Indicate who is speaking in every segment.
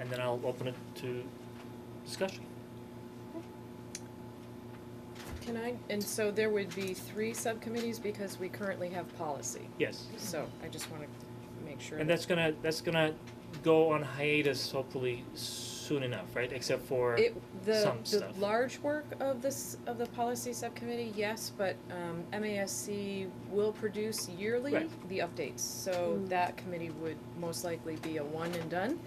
Speaker 1: and then I'll open it to discussion.
Speaker 2: Can I, and so there would be three subcommittees because we currently have policy.
Speaker 1: Yes.
Speaker 2: So I just wanna make sure.
Speaker 1: And
Speaker 2: that-
Speaker 1: that's gonna, that's gonna go on hiatus hopefully soon enough, right? Except for,
Speaker 2: It, the,
Speaker 1: some
Speaker 2: the
Speaker 1: stuff.
Speaker 2: large work of this, of the policy subcommittee, yes, but, um, MASC will produce yearly
Speaker 1: Right.
Speaker 2: the updates. So
Speaker 3: Mm.
Speaker 2: that committee would most likely be a one and done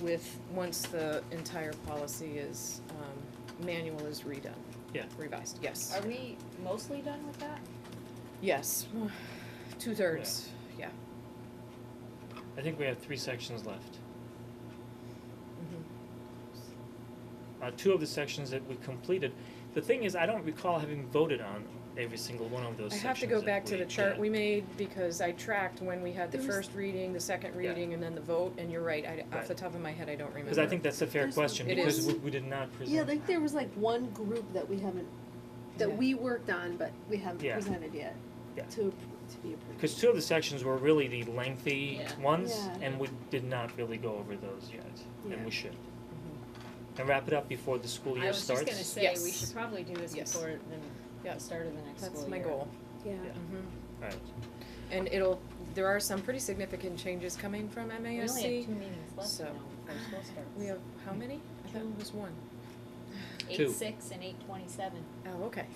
Speaker 2: with, once the entire policy is, um, manual is redone.
Speaker 1: Yeah.
Speaker 2: Revised, yes,
Speaker 3: Are we mostly done with that?
Speaker 2: yes, two-thirds, yeah.
Speaker 1: I think we have three sections left.
Speaker 2: Mhm.
Speaker 1: Uh, two of the sections that we completed. The thing is, I don't recall having voted on every single one of those
Speaker 2: I
Speaker 1: sections.
Speaker 2: have to go
Speaker 1: that
Speaker 2: back to
Speaker 1: we
Speaker 2: the chart
Speaker 1: did.
Speaker 2: we made because I tracked when we had the
Speaker 4: There was-
Speaker 2: first reading, the second
Speaker 1: Yeah.
Speaker 2: reading, and then the vote, and you're right, I, off the
Speaker 1: Right.
Speaker 2: top of my head, I don't remember.
Speaker 1: Cause I think that's a fair
Speaker 4: There's
Speaker 1: question,
Speaker 2: It
Speaker 1: because
Speaker 2: is.
Speaker 1: we, we did not present.
Speaker 4: Yeah, like there was like one group that we haven't,
Speaker 2: Yeah.
Speaker 4: that we worked on, but we haven't
Speaker 1: Yeah.
Speaker 4: presented yet.
Speaker 1: Yeah.
Speaker 4: To, appro- to be approved.
Speaker 1: Cause two of the sections were really the lengthy
Speaker 3: Yeah.
Speaker 1: ones,
Speaker 4: Yeah.
Speaker 1: and we did not really go over those yet, and
Speaker 4: Yeah.
Speaker 1: we should. And wrap it up before the school
Speaker 3: I
Speaker 1: year
Speaker 3: was
Speaker 1: starts.
Speaker 3: just gonna say we
Speaker 2: Yes.
Speaker 3: should probably do this
Speaker 2: Yes.
Speaker 3: before the
Speaker 2: Yeah.
Speaker 3: the start of the next
Speaker 2: That's
Speaker 3: school
Speaker 2: my
Speaker 3: year.
Speaker 2: goal. Mm-hmm.
Speaker 4: Yeah.
Speaker 1: Yeah. Alright,
Speaker 2: And it'll, there are some pretty significant changes coming from
Speaker 3: We only have
Speaker 2: MASC.
Speaker 3: two meetings left
Speaker 2: so-
Speaker 3: now before school starts.
Speaker 2: We have, how many? I thought it was one.
Speaker 1: Two.
Speaker 3: Eight six and eight twenty seven.
Speaker 2: Oh, okay.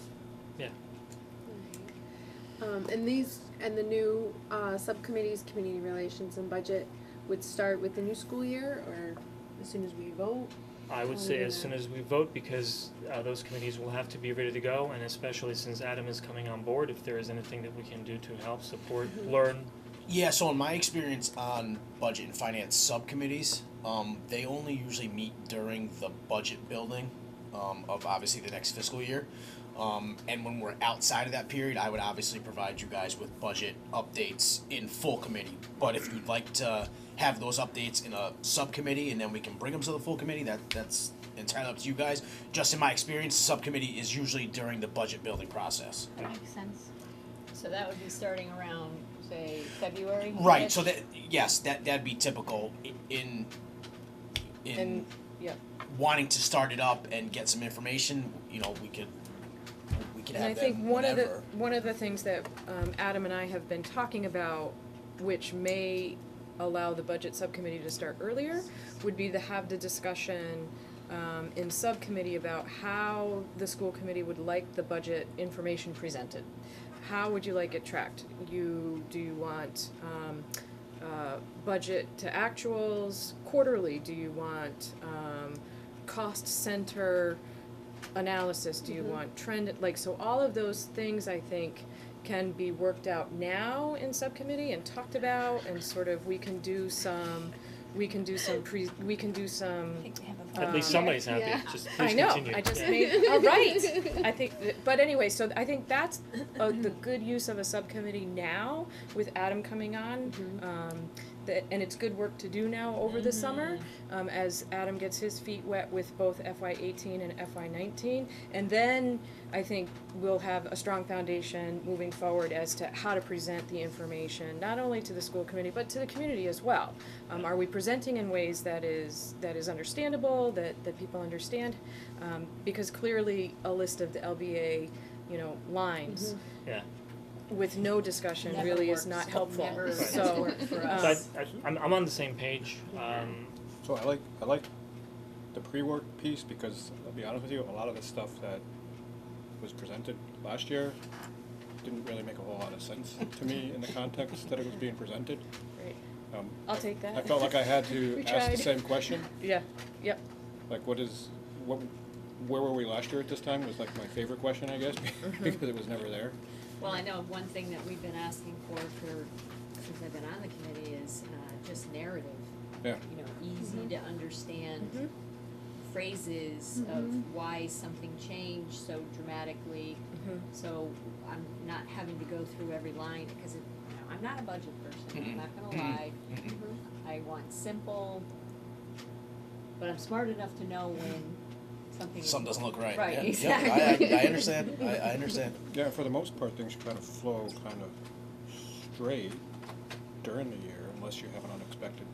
Speaker 5: Um, and these, and the new, uh, subcommittees, community relations and budget would start with the new school year or as soon as we vote?
Speaker 1: I would
Speaker 5: Oh,
Speaker 1: say as
Speaker 5: yeah.
Speaker 1: soon as we vote, because uh those committees will have to be ready to go, and especially since Adam is coming on board, if there is anything that we can do to help support, learn,
Speaker 6: Yeah, so in my experience on budget and finance subcommittees, um, they only usually meet during the budget building um, of obviously the next fiscal year. Um, and when we're outside of that period, I would obviously provide you guys with budget updates in full committee. But if you'd like to have those updates in a subcommittee and then we can bring them to the full committee, that that's entirely up to you guys. Just in my experience, subcommittee is usually during the budget building process.
Speaker 1: That
Speaker 3: makes sense. So that would be starting around, say, February?
Speaker 6: Right. So that yes, that that'd be typical i- in in
Speaker 2: And, yeah.
Speaker 6: wanting to start it up and get some information. You know, we could we could
Speaker 2: And I
Speaker 6: have
Speaker 2: think
Speaker 6: them
Speaker 2: one of the,
Speaker 6: whenever.
Speaker 2: one of the things that, um, Adam and I have been talking about, which may allow the budget subcommittee to start earlier, would be to have the discussion, um, in subcommittee about how the school committee would like the budget information presented. How would you like it tracked? You, do you want, um, uh, budget to actuals quarterly? Do you want, um, cost center, analysis do you
Speaker 3: Mm-hmm.
Speaker 2: want trend like so all of those things i think can be worked out now in subcommittee and talked about and sort of we can do some we can do some pre we can do some
Speaker 3: I think we have a
Speaker 1: at least
Speaker 2: Um,
Speaker 1: somebody's happy,
Speaker 5: yeah.
Speaker 1: just
Speaker 2: I
Speaker 1: please
Speaker 2: know.
Speaker 1: continue.
Speaker 2: I just
Speaker 1: Yeah.
Speaker 2: made. All right. I think. that- But anyway, so I think that's uh the good use of a subcommittee now with Adam coming on. Um, that and it's good work to do now over the summer
Speaker 3: Mm-hmm.
Speaker 2: um, as Adam gets his feet wet with both FY eighteen and FY nineteen, and then I think we'll have a strong foundation moving forward as to how to present the information not only to the school committee but to the community as well. Um, are we presenting in ways that is that is understandable that that people understand? Um, because clearly a list of the LBA, you know, lines
Speaker 1: Yeah.
Speaker 2: with no discussion
Speaker 3: Mm-hmm. Never
Speaker 2: really
Speaker 3: works.
Speaker 2: is not helpful.
Speaker 3: Never
Speaker 1: Right.
Speaker 3: has
Speaker 2: So,
Speaker 3: worked for
Speaker 2: um,
Speaker 1: So I,
Speaker 3: us.
Speaker 1: I, I'm, I'm on the same page, um,
Speaker 7: So I like I like the pre-work piece because I'll be honest with you, a lot of the stuff that was presented last year didn't really make a whole lot of sense to me in the context that it was being presented.
Speaker 2: Great.
Speaker 7: Um,
Speaker 2: I'll take that.
Speaker 7: I felt like I had to
Speaker 2: We
Speaker 7: ask
Speaker 2: tried.
Speaker 7: the same question,
Speaker 2: Yeah. Yep.
Speaker 7: like what is what where were we last year at this time was like my favorite question, I guess,
Speaker 2: Mm-hmm.
Speaker 7: because it was never there.
Speaker 3: Well, I know of one thing that we've been asking for for, since I've been on the committee is, uh, just narrative.
Speaker 7: Yeah.
Speaker 3: You know, easy to
Speaker 2: Mhm.
Speaker 3: understand phrases of why something changed so dramatically.
Speaker 2: Mhm.
Speaker 3: So I'm not having to go through every line, because it, you know, I'm not a budget person, I'm not gonna lie.
Speaker 6: Mm-mm.
Speaker 3: I want simple, but I'm smart enough to know when something is
Speaker 6: Something doesn't look right.
Speaker 3: Right,
Speaker 6: yeah,
Speaker 3: exactly.
Speaker 6: Yeah, I, I understand. I, I understand.
Speaker 7: Yeah, for the most part, things kind of flow kind of straight during the year unless you have an unexpected